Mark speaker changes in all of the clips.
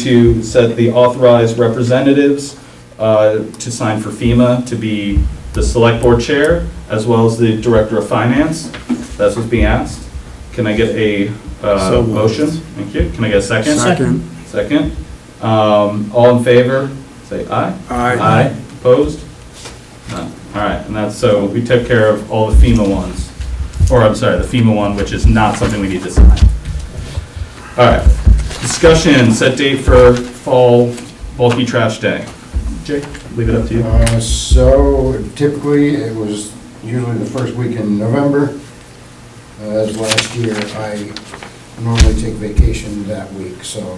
Speaker 1: to set the authorized representatives uh, to sign for FEMA to be the select board chair as well as the director of finance. That's what's being asked. Can I get a
Speaker 2: So
Speaker 1: uh,
Speaker 2: moved.
Speaker 1: motion? Thank you. Can I get a second?
Speaker 2: Second.
Speaker 1: Second. Um, All in favor, say aye.
Speaker 2: Aye.
Speaker 1: Opposed? None. All right, and that's, so we took care of all the FEMA ones, or I'm sorry, the FEMA one, which is not something we need to sign. All right, discussion, set date for fall bulky trash day. Jake, leave it up to you.
Speaker 3: Uh, So typically, it was usually the first week in November. Uh, As last year, I normally take vacation that week, so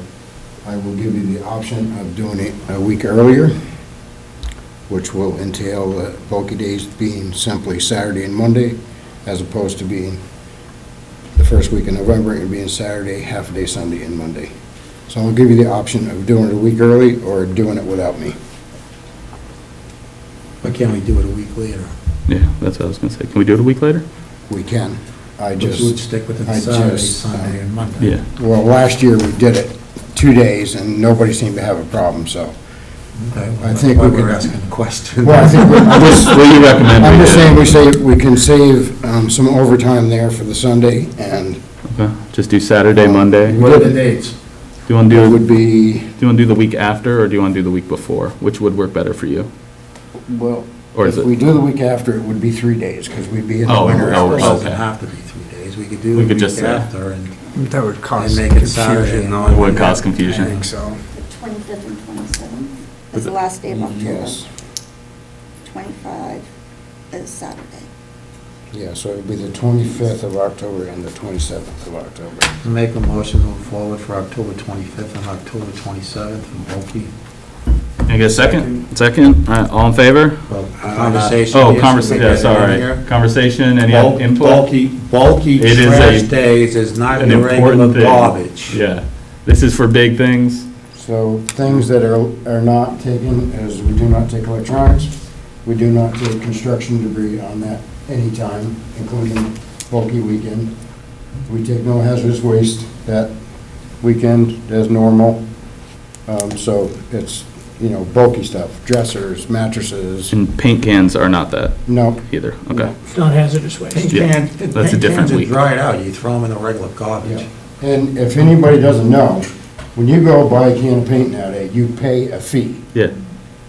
Speaker 3: I will give you the option of doing it a week earlier, which will entail the bulky days being simply Saturday and Monday, as opposed to being the first week in November and being Saturday, half a day Sunday and Monday. So I'll give you the option of doing it a week early or doing it without me.
Speaker 2: Why can't we do it a week later?
Speaker 1: Yeah, that's what I was gonna say. Can we do it a week later?
Speaker 3: We can. I
Speaker 2: Which would
Speaker 3: just,
Speaker 2: stick with
Speaker 3: I
Speaker 2: the Saturday,
Speaker 3: just,
Speaker 2: Sunday,
Speaker 3: uh,
Speaker 2: and Monday.
Speaker 3: well, last year we did it two days and nobody seemed to have a problem, so.
Speaker 2: Okay, well,
Speaker 3: I
Speaker 2: that's
Speaker 3: think
Speaker 2: why
Speaker 3: we
Speaker 2: we're
Speaker 3: could-
Speaker 2: asking the question.
Speaker 3: Well, I think, we- I'm just,
Speaker 1: What do you recommend?
Speaker 3: I'm just saying we say, we can save um, some overtime there for the Sunday and
Speaker 1: Just do Saturday, Monday?
Speaker 2: What are the dates?
Speaker 1: Do you wanna
Speaker 3: it
Speaker 1: do,
Speaker 3: would
Speaker 1: do
Speaker 3: be,
Speaker 1: you wanna do the week after, or do you wanna do the week before? Which would work better for you?
Speaker 3: well,
Speaker 1: Or is
Speaker 3: if
Speaker 1: it-
Speaker 3: we do the week after, it would be three days because we'd be in the
Speaker 1: Oh,
Speaker 3: winter.
Speaker 1: oh,
Speaker 2: It
Speaker 3: hours.
Speaker 2: doesn't
Speaker 1: okay.
Speaker 2: have to be three days, we could do
Speaker 1: We
Speaker 2: it
Speaker 1: could
Speaker 2: week
Speaker 1: just say-
Speaker 2: after and
Speaker 4: That would
Speaker 2: and
Speaker 4: cause
Speaker 2: make it Saturday.
Speaker 4: confusion.
Speaker 2: and all
Speaker 1: It would
Speaker 2: that.
Speaker 1: cause confusion.
Speaker 2: I think so.
Speaker 5: 25th and 27th
Speaker 1: Is
Speaker 5: is the
Speaker 1: it-
Speaker 5: last day of October.
Speaker 3: Yes,
Speaker 5: 25 is Saturday.
Speaker 3: yeah, so it would be the 25th of October and the 27th of October.
Speaker 2: Make a motion to move forward for October 25th and October 27th for bulky.
Speaker 1: Can I get a second? Second? All right, all in favor?
Speaker 2: Well, Conversation.
Speaker 1: Oh,
Speaker 2: is-
Speaker 1: conversation, yeah, sorry.
Speaker 2: Bulk-
Speaker 1: Conversation, any input?
Speaker 2: Bulky, bulky
Speaker 1: It is a-
Speaker 2: trash days is not
Speaker 1: An
Speaker 2: your regular
Speaker 1: important thing.
Speaker 2: garbage.
Speaker 1: Yeah. This is for big things.
Speaker 3: So things that are, are not taken is we do not take electronics, we do not take construction debris on that anytime, including bulky weekend. We take no hazardous waste that weekend as normal. Um, so it's, you know, bulky stuff, dressers, mattresses,
Speaker 1: And paint cans are not that
Speaker 3: no,
Speaker 1: either. Okay.
Speaker 4: Non-hazardous
Speaker 2: Paint
Speaker 1: Yeah,
Speaker 2: can-
Speaker 1: that's a
Speaker 2: paint
Speaker 1: different
Speaker 2: cans are
Speaker 1: week.
Speaker 2: dried out, you throw them in the regular garbage.
Speaker 3: Yeah, And if anybody doesn't know, when you go buy a can of paint nowadays, you pay a fee.
Speaker 1: Yeah.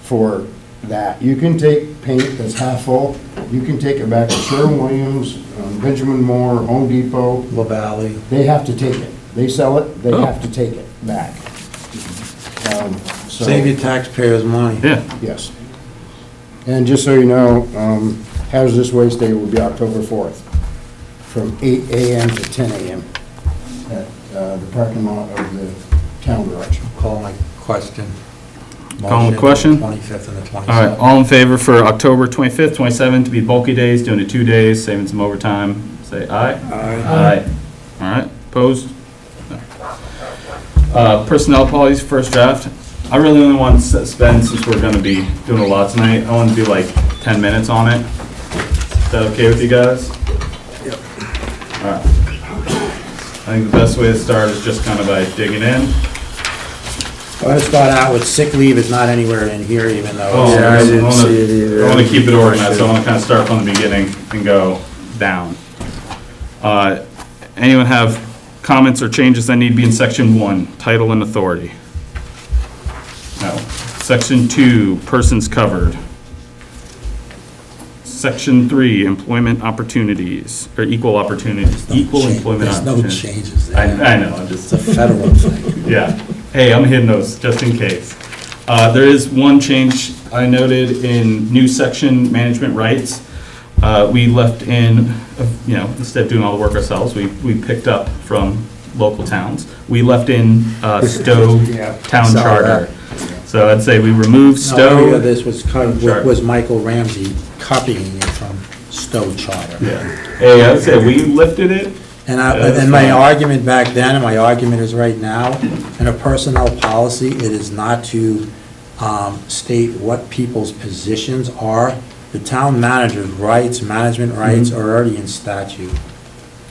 Speaker 3: for that. You can take paint that's half full, you can take it back to Sherwin-Williams, um, Benjamin Moore, Home Depot,
Speaker 2: La Valley,
Speaker 3: they have to take it. They sell it, they
Speaker 1: Oh.
Speaker 3: have to take it back. Um, so-
Speaker 2: save your taxpayers' money.
Speaker 1: Yeah.
Speaker 3: Yes. And just so you know, um, hazardous waste day will be October 4th, from 8 AM to 10 AM at uh, the parking lot of the town garage.
Speaker 2: Call my question.
Speaker 1: Call the question?
Speaker 2: Twenty-fifth and the
Speaker 1: All right,
Speaker 2: twenty-seventh.
Speaker 1: all in favor for October 25th, 27th to be bulky days, doing it two days, saving some overtime, say aye. Aye. All right, opposed? No. Uh, Personnel policies, first draft. I really only want to s- spend, since we're gonna be doing a lot tonight, I want to do like 10 minutes on it. Is that okay with you guys? Yep. All right. I think the best way to start is just kind of by digging in.
Speaker 2: I'm gonna start out with sick leave is not anywhere in here, even though.
Speaker 1: Oh,
Speaker 2: it's-
Speaker 4: Yeah, I didn't
Speaker 1: wanna-
Speaker 4: see it either.
Speaker 1: I want to keep it organized, so I want to kind of start from the beginning and go down. Uh, Anyone have comments or changes that need to be in section one, title and authority? No. Section two, persons covered. Section three, employment opportunities, or equal opportunities, equal
Speaker 2: Change-
Speaker 1: employment
Speaker 2: There's no
Speaker 1: opportunities.
Speaker 2: changes
Speaker 1: I,
Speaker 2: there.
Speaker 1: I know, I'm just.
Speaker 2: It's a federal thing.
Speaker 1: Yeah. Hey, I'm hitting those just in case. Uh, There is one change I noted in new section, management rights. Uh, We left in, uh, you know, instead of doing all the work ourselves, we, we picked up from local towns. We left in uh, Stowe Town
Speaker 2: saw
Speaker 1: Charter. So I'd say we removed
Speaker 2: No, area
Speaker 1: Stowe.
Speaker 2: this was, kind
Speaker 1: Sure.
Speaker 2: of- was Michael Ramsey copying it from Stowe Charter.
Speaker 1: Yeah. Hey, I'd say we lifted it.
Speaker 2: And I,
Speaker 1: Yeah, that's
Speaker 2: and my
Speaker 1: fine.
Speaker 2: argument back then, and my argument is right now, in a personnel policy, it is not to, um, state what people's positions
Speaker 1: Mm-hmm.
Speaker 2: are. The town manager's rights, management rights are already in statute.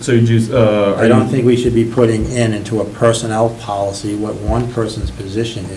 Speaker 1: So you just, uh. are
Speaker 2: I don't
Speaker 1: you-
Speaker 2: think we should be putting in into a personnel policy what one person's position is.